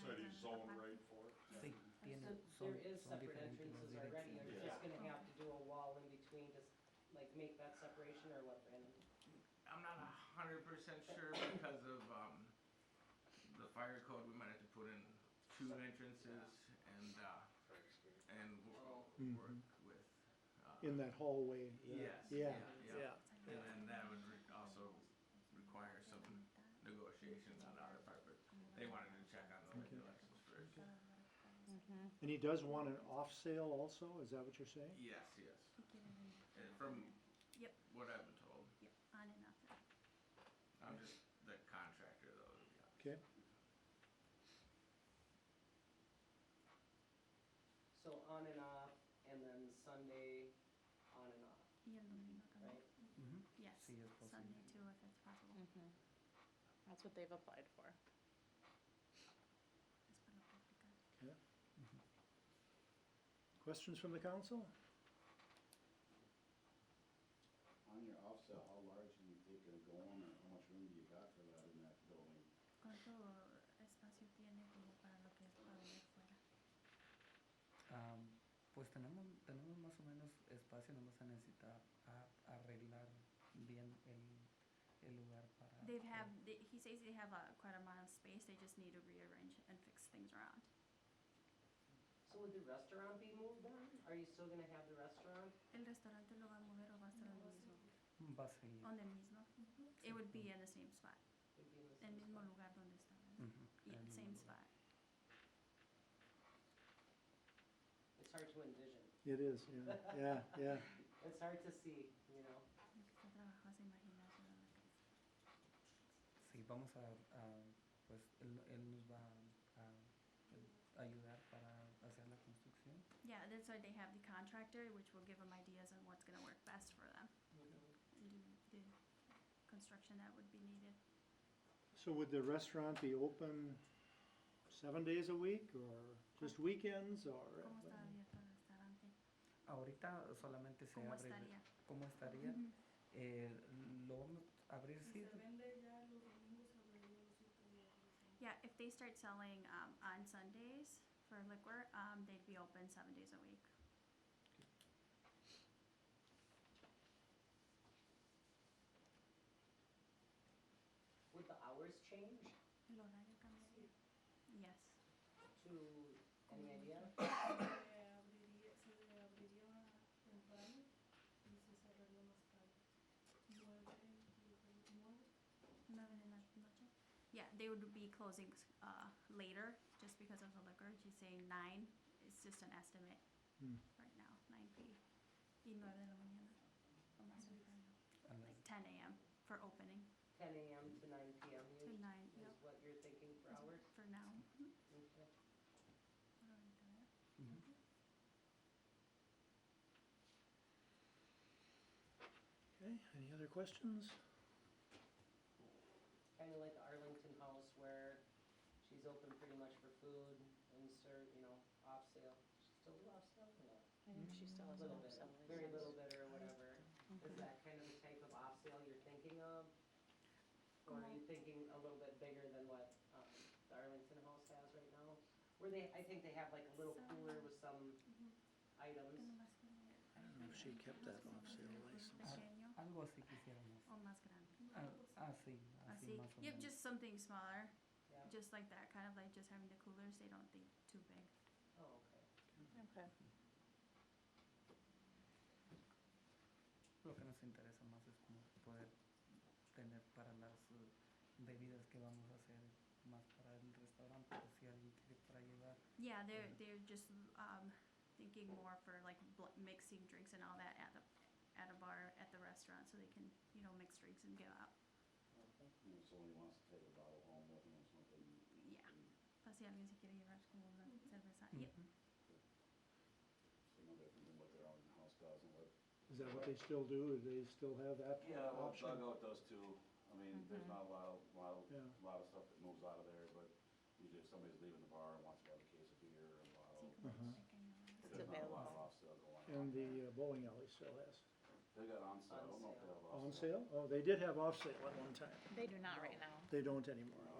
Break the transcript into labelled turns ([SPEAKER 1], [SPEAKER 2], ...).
[SPEAKER 1] zone right for it.
[SPEAKER 2] I think being
[SPEAKER 3] So
[SPEAKER 2] a- some-
[SPEAKER 3] There is
[SPEAKER 2] some
[SPEAKER 3] separate
[SPEAKER 2] different
[SPEAKER 3] entrances
[SPEAKER 2] entrances, I
[SPEAKER 3] already,
[SPEAKER 2] think.
[SPEAKER 3] you're
[SPEAKER 1] Yeah.
[SPEAKER 3] just gonna have to do a wall in between, just like make that separation or what, Brandon?
[SPEAKER 4] I'm not a hundred percent sure because of, um, the fire code, we might have to put in two entrances and, uh, and wo-
[SPEAKER 5] Mhm.
[SPEAKER 4] work with. uh,
[SPEAKER 5] in that hallway.
[SPEAKER 4] Yes.
[SPEAKER 5] Yeah,
[SPEAKER 4] Yeah, and then that would re- also require some negotiations on our part, but they wanted to check on the regulations first.
[SPEAKER 5] And he does want an off sale also, is that what you're saying?
[SPEAKER 4] Yes, yes, and from
[SPEAKER 6] Yep.
[SPEAKER 4] what I've been told,
[SPEAKER 6] Yep, on and off.
[SPEAKER 4] I'm just the contractor though, to be honest.
[SPEAKER 5] Okay,
[SPEAKER 3] So on and off, and then Sunday, on and off,
[SPEAKER 6] Y el domingo también.
[SPEAKER 3] right?
[SPEAKER 6] Yes,
[SPEAKER 2] Sí, es posible.
[SPEAKER 6] Sunday too, if it's possible.
[SPEAKER 7] Mm-hmm. That's what they've applied for.
[SPEAKER 6] Es para practicar.
[SPEAKER 5] yeah. Questions from the council?
[SPEAKER 8] On your offset, how large do you think it'll go on, or how much room do you got for that in that building?
[SPEAKER 6] ¿Cuánto espacio tiene como para lo que es para allá afuera?
[SPEAKER 2] Am, pues tenemos, tenemos más o menos espacio, no vamos a necesitar a- arreglar bien el, el lugar para...
[SPEAKER 6] They have, they, he says they have a, quite a amount of space, they just need to rearrange and fix things around.
[SPEAKER 3] So would the restaurant be moved then? Are you still gonna have the restaurant?
[SPEAKER 6] ¿El restaurante lo va a mover o va a estar lo mismo?
[SPEAKER 2] Va a seguir.
[SPEAKER 6] Donde mismo. It would be in the same spot,
[SPEAKER 3] It'd be in the
[SPEAKER 6] el
[SPEAKER 3] same
[SPEAKER 6] mismo
[SPEAKER 3] spot.
[SPEAKER 6] lugar donde estaba.
[SPEAKER 2] Ujú,
[SPEAKER 6] Yeah,
[SPEAKER 2] en el
[SPEAKER 6] same
[SPEAKER 2] lugar.
[SPEAKER 6] spot.
[SPEAKER 3] It's hard to envision,
[SPEAKER 5] It is, yeah, yeah, yeah.
[SPEAKER 3] it's hard to see, you know?
[SPEAKER 6] Lo que está trabajando es imaginarse lo que es.
[SPEAKER 2] Sí, vamos a, a- pues él, él nos va a, a ayudar para hacer la construcción.
[SPEAKER 6] Yeah, that's why they have the contractor, which will give them ideas on what's gonna work best for them, and do the construction that would be needed.
[SPEAKER 5] So would the restaurant be open seven days a week, or just weekends, or?
[SPEAKER 6] ¿Cómo está abierto el restaurante?
[SPEAKER 2] Ahorita solamente se
[SPEAKER 6] ¿Cómo
[SPEAKER 2] abre...
[SPEAKER 6] estaría?
[SPEAKER 2] ¿Cómo estaría? Eh, lo vamos a abrir, sí.
[SPEAKER 6] Yeah, if they start selling, um, on Sundays for liquor, um, they'd be open seven days a week.
[SPEAKER 3] Would the hours change
[SPEAKER 6] ¿El horario cambiaría? Yes.
[SPEAKER 3] to, any idea?
[SPEAKER 6] Nueve de la noche? Yeah, they would be closing, uh, later, just because of the liquor, she's saying nine, it's just an estimate
[SPEAKER 5] Hmm.
[SPEAKER 6] right now, nine P. Y nueve de la mañana, o más temprano.
[SPEAKER 2] A las-
[SPEAKER 6] like ten AM for opening
[SPEAKER 3] Ten AM to nine PM
[SPEAKER 6] to
[SPEAKER 3] is
[SPEAKER 6] nine,
[SPEAKER 3] is
[SPEAKER 6] yep,
[SPEAKER 3] what you're thinking for
[SPEAKER 6] That's
[SPEAKER 3] hours?
[SPEAKER 6] for now.
[SPEAKER 3] Okay.
[SPEAKER 2] Ujú.
[SPEAKER 5] Okay, any other questions?
[SPEAKER 3] kind of like the Arlington House where she's open pretty much for food and serve, you know, off sale. She's still do off sale, you know,
[SPEAKER 7] I think she still
[SPEAKER 3] a
[SPEAKER 7] has
[SPEAKER 3] little
[SPEAKER 7] an
[SPEAKER 3] bit,
[SPEAKER 7] upsell.
[SPEAKER 3] very little bit or whatever. Is that kind of the type of off sale you're thinking of? Or are you thinking a little bit bigger than what, um, the Arlington House has right now? Where they, I think they have like a little cooler with some items.
[SPEAKER 5] I don't know if she kept that off sale license.
[SPEAKER 6] Pequeño
[SPEAKER 2] Algo así quisiéramos.
[SPEAKER 6] o más Oh, grande.
[SPEAKER 2] Ah, así, así,
[SPEAKER 6] Así,
[SPEAKER 2] más o
[SPEAKER 6] yep,
[SPEAKER 2] menos.
[SPEAKER 6] just something smaller,
[SPEAKER 3] Yeah,
[SPEAKER 6] just like that, kind of like just having the coolers, they don't think too big.
[SPEAKER 3] oh, okay.
[SPEAKER 7] Okay.
[SPEAKER 2] Lo que nos interesa más es como poder tener para las eh, bebidas que vamos a hacer más para el restaurante, por si alguien quiere para llevar.
[SPEAKER 6] Yeah, they're,
[SPEAKER 2] Mhm.
[SPEAKER 6] they're just, um, thinking more for like bl- mixing drinks and all that at the, at a bar, at the restaurant, so they can, you know, mix drinks and give out.
[SPEAKER 8] You know, if somebody wants to take a bottle home with them or something. you
[SPEAKER 6] Yeah.
[SPEAKER 8] can-
[SPEAKER 6] Pues si alguien se quiere llevar como una cerveza, yep.
[SPEAKER 2] Ujú.
[SPEAKER 8] You know, they can do what their own house does and what.
[SPEAKER 5] Is that what they still do, do they still have that
[SPEAKER 8] Yeah, well,
[SPEAKER 5] option?
[SPEAKER 8] Dugout does too. I mean, there's not a lot, of- lot, of-
[SPEAKER 5] Yeah.
[SPEAKER 8] lot of stuff that moves out of there, but usually if somebody's leaving the bar and wants to have a case of beer or a
[SPEAKER 6] Sí,
[SPEAKER 8] bottle.
[SPEAKER 6] como
[SPEAKER 5] Ajá.
[SPEAKER 6] pequeño.
[SPEAKER 8] but
[SPEAKER 7] It's
[SPEAKER 8] There's not a lot of
[SPEAKER 7] available.
[SPEAKER 8] off sale going on.
[SPEAKER 5] And the uh, bowling alley still has.
[SPEAKER 8] They got on sale, I don't know if they have off sale.
[SPEAKER 5] On sale? Oh, they did have off sale at one time.
[SPEAKER 7] They do not right now.
[SPEAKER 5] They don't anymore,